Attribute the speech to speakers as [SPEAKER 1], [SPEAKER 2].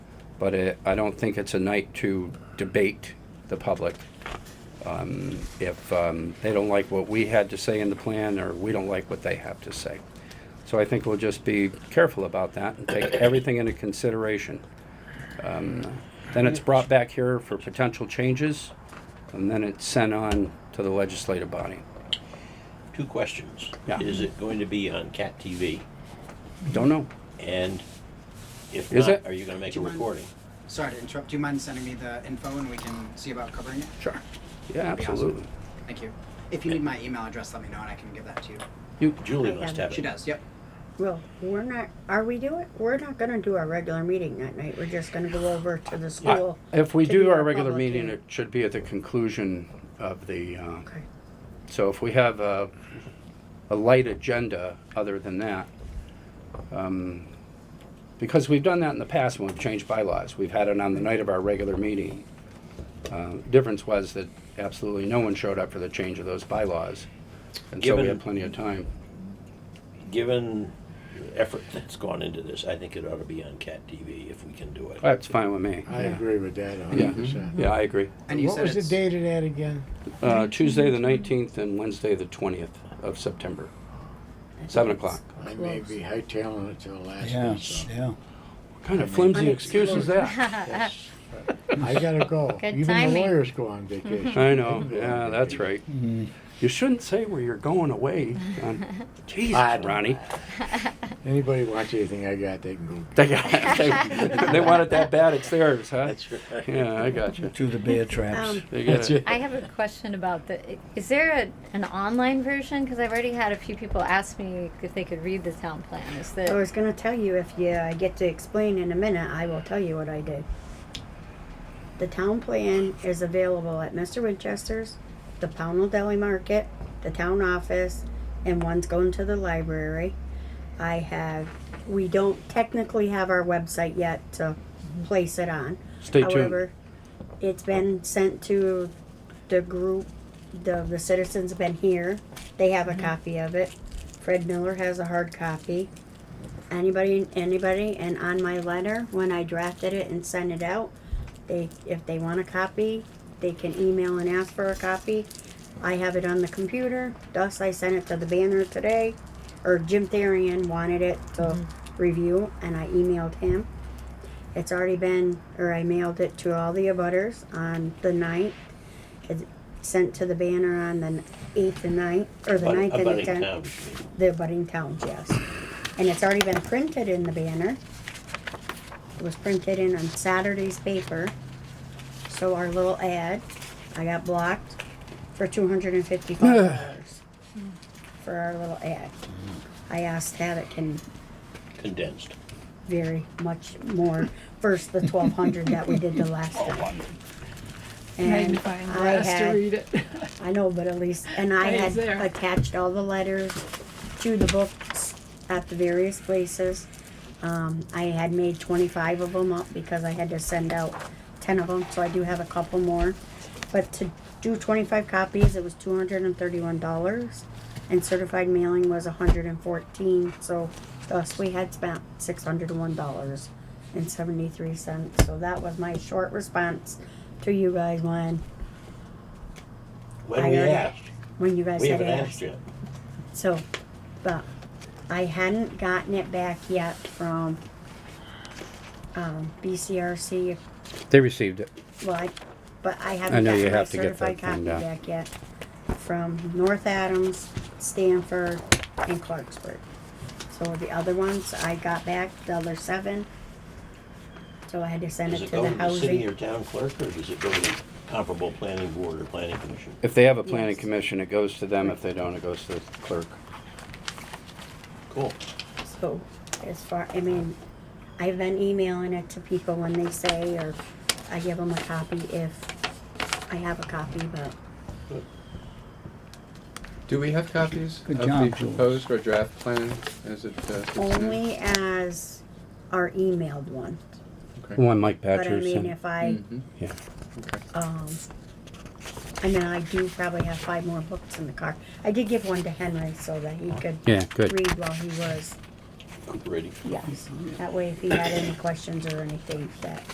[SPEAKER 1] but it, I don't think it's a night to debate the public. Um, If um, they don't like what we had to say in the plan, or we don't like what they have to say. So I think we'll just be careful about that and take everything into consideration. Um, Then it's brought back here for potential changes, and then it's sent on to the legislative body.
[SPEAKER 2] Two questions.
[SPEAKER 1] Yeah.
[SPEAKER 2] Is it going to be on Cat TV?
[SPEAKER 1] Don't know.
[SPEAKER 2] And if
[SPEAKER 1] Is
[SPEAKER 2] not,
[SPEAKER 1] it?
[SPEAKER 2] are you gonna make
[SPEAKER 3] Do
[SPEAKER 2] a
[SPEAKER 3] you mind?
[SPEAKER 2] recording?
[SPEAKER 3] Sorry to interrupt. Do you mind sending me the info and we can see about covering it?
[SPEAKER 1] Sure. Yeah,
[SPEAKER 3] That'd be awesome.
[SPEAKER 1] absolutely.
[SPEAKER 3] Thank you. If you need my email address, let me know and I can give that to you.
[SPEAKER 1] You,
[SPEAKER 2] Julie
[SPEAKER 4] I
[SPEAKER 2] must
[SPEAKER 4] am.
[SPEAKER 2] have it.
[SPEAKER 3] She does. Yep.
[SPEAKER 4] Well, we're not, are we doing, we're not gonna do our regular meeting that night, we're just gonna go over to the
[SPEAKER 1] I-
[SPEAKER 4] school.
[SPEAKER 1] if we
[SPEAKER 4] to
[SPEAKER 1] do our regular
[SPEAKER 4] public
[SPEAKER 1] meeting,
[SPEAKER 4] hearing.
[SPEAKER 1] it should be at the conclusion of the, uh,
[SPEAKER 4] Okay,
[SPEAKER 1] so if we have a, a light agenda other than that, um, because we've done that in the past when we've changed bylaws, we've had it on the night of our regular meeting. Uh, Difference was that absolutely no one showed up for the change of those bylaws, and so we
[SPEAKER 2] Given-
[SPEAKER 1] had plenty of time.
[SPEAKER 2] Given the effort that's gone into this, I think it ought to be on Cat TV if we can do it.
[SPEAKER 1] That's fine with me.
[SPEAKER 5] I
[SPEAKER 1] yeah.
[SPEAKER 5] agree with that a
[SPEAKER 1] Yeah. Mm-hmm.
[SPEAKER 5] hundred percent.
[SPEAKER 1] Yeah, I agree.
[SPEAKER 3] And you
[SPEAKER 5] What
[SPEAKER 3] said
[SPEAKER 5] was the
[SPEAKER 3] it's
[SPEAKER 5] date of that again?
[SPEAKER 1] Uh, Tuesday, the nineteenth, and Wednesday, the twentieth of September, seven o'clock.
[SPEAKER 5] I may be hightailing it to the last
[SPEAKER 6] Yeah,
[SPEAKER 5] one, so.
[SPEAKER 6] yeah.
[SPEAKER 1] What kind of flimsy excuse is that?
[SPEAKER 5] Yes. I gotta go.
[SPEAKER 7] Ah. Good
[SPEAKER 5] Even the
[SPEAKER 7] timing.
[SPEAKER 5] lawyers go on vacation.
[SPEAKER 1] I know, yeah, that's right. You shouldn't say where you're going away. John.
[SPEAKER 5] I
[SPEAKER 1] Jesus,
[SPEAKER 5] don't-
[SPEAKER 1] Ronnie.
[SPEAKER 5] Anybody watch anything I got, they can go.
[SPEAKER 1] They, got- they- they want it that bad, it's theirs, huh?
[SPEAKER 2] That's right.
[SPEAKER 1] Yeah, I got you.
[SPEAKER 6] To the bear traps.
[SPEAKER 4] um,
[SPEAKER 1] They got it.
[SPEAKER 7] I have a question about the. Is there a, an online version? Because I've already had a few people ask me if they could read the town plan. Is
[SPEAKER 4] I
[SPEAKER 7] that?
[SPEAKER 4] was gonna tell you, if you, I get to explain in a minute, I will tell you what I did. The town plan is available at Mr. Winchester's, the Pownell Deli Market, the town office, and one's going to the library. I have, we don't technically have our website yet to
[SPEAKER 5] Mm-hmm.
[SPEAKER 4] place it on.
[SPEAKER 1] Stay tuned.
[SPEAKER 4] However, it's been sent to the group, the, the citizens have been here, they
[SPEAKER 1] Mm-hmm.
[SPEAKER 4] have a copy of it. Fred Miller has a hard copy. Anybody, anybody, and on my letter, when I drafted it and sent it out, they, if they want a copy, they can email and ask for a copy. I have it on the computer, thus I sent it to the banner today, or Jim Therian wanted it to review, and I emailed him. It's already been, or I mailed it to all the abutters on the ninth. It's sent to the banner on the eighth and ninth, or the
[SPEAKER 2] But
[SPEAKER 4] ninth and the
[SPEAKER 2] abutting
[SPEAKER 4] tenth
[SPEAKER 2] towns, you mean.
[SPEAKER 4] the budding towns, yes. And it's already been printed in the banner. It was printed in on Saturday's paper. So our little ad, I got blocked for two hundred and fifty-five dollars for our little ad. I asked how it can
[SPEAKER 2] condensed.
[SPEAKER 4] very much more versus the twelve hundred that we did the last time. And
[SPEAKER 8] magnifying
[SPEAKER 4] I
[SPEAKER 8] glass to
[SPEAKER 4] had
[SPEAKER 8] read it.
[SPEAKER 4] I know, but at least, and I
[SPEAKER 8] But it's
[SPEAKER 4] had
[SPEAKER 8] there.
[SPEAKER 4] attached all the letters to the books at the various places. Um, I had made twenty-five of them up because I had to send out ten of them, so I do have a couple more. But to do twenty-five copies, it was two hundred and thirty-one dollars, and certified mailing was a hundred and fourteen, so thus we had spent six hundred and one dollars and seventy-three cents, so that was my short response to you guys when,
[SPEAKER 2] When
[SPEAKER 4] I
[SPEAKER 2] we
[SPEAKER 4] heard it.
[SPEAKER 2] asked,
[SPEAKER 4] when you guys
[SPEAKER 2] we
[SPEAKER 4] had
[SPEAKER 2] haven't
[SPEAKER 4] asked.
[SPEAKER 2] asked yet.
[SPEAKER 4] So, but I hadn't gotten it back yet from, um, BCRC,
[SPEAKER 1] They received it.
[SPEAKER 4] well, I, but I
[SPEAKER 1] I
[SPEAKER 4] haven't
[SPEAKER 1] know you
[SPEAKER 4] gotten my
[SPEAKER 1] have to get that
[SPEAKER 4] certified
[SPEAKER 1] thing
[SPEAKER 4] copy
[SPEAKER 1] down.
[SPEAKER 4] back yet. From North Adams, Stanford, and Clarksburg. So the other ones I got back, the other seven. So I had to send
[SPEAKER 2] Does
[SPEAKER 4] it
[SPEAKER 2] it
[SPEAKER 4] to
[SPEAKER 2] go
[SPEAKER 4] the
[SPEAKER 2] to the city or
[SPEAKER 4] housing.
[SPEAKER 2] town clerk, or does it go to the comparable planning board or planning commission?
[SPEAKER 1] If they have a planning
[SPEAKER 4] Yes.
[SPEAKER 1] commission, it goes to them. If they don't, it goes to the clerk.
[SPEAKER 2] Cool.
[SPEAKER 4] So, as far, I mean, I've been emailing it to people when they say, or I give them a copy if I have a copy, but
[SPEAKER 9] Do we have copies
[SPEAKER 6] Good
[SPEAKER 9] of
[SPEAKER 6] job,
[SPEAKER 9] the
[SPEAKER 6] Jules.
[SPEAKER 9] proposed or draft plan as it? uh, sits now?
[SPEAKER 4] only as our emailed one.
[SPEAKER 9] Okay.
[SPEAKER 1] One Mike
[SPEAKER 4] But I
[SPEAKER 1] Badger
[SPEAKER 4] mean,
[SPEAKER 1] sent.
[SPEAKER 4] if I,
[SPEAKER 2] Mm-hmm.
[SPEAKER 9] Mhm.
[SPEAKER 1] Yeah.
[SPEAKER 4] um, I mean, I do probably have five more books in the car. I did give one to Henry so that he could
[SPEAKER 1] Yeah, good.
[SPEAKER 4] read while he was,
[SPEAKER 2] Cooperating.
[SPEAKER 4] yes. That way if he had any questions or anything that